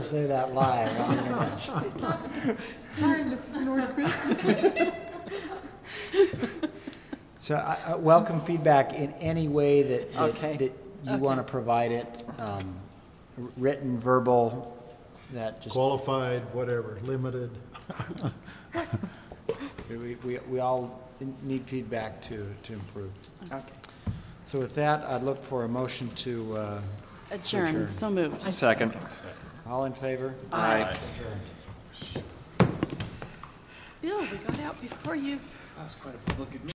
Say that live on the internet. Sorry, Mrs. Nordquist. So I, I welcome feedback in any way that, that- Okay. that you want to provide it, um, wr- written, verbal, that just, qualified, whatever, limited. we, we, we all need feedback to, to improve. Okay. So with that, I'd look for a motion to, uh, Adjourn. Adjourned, so moved. Second. all in favor? Aye. Bill, we got out before you.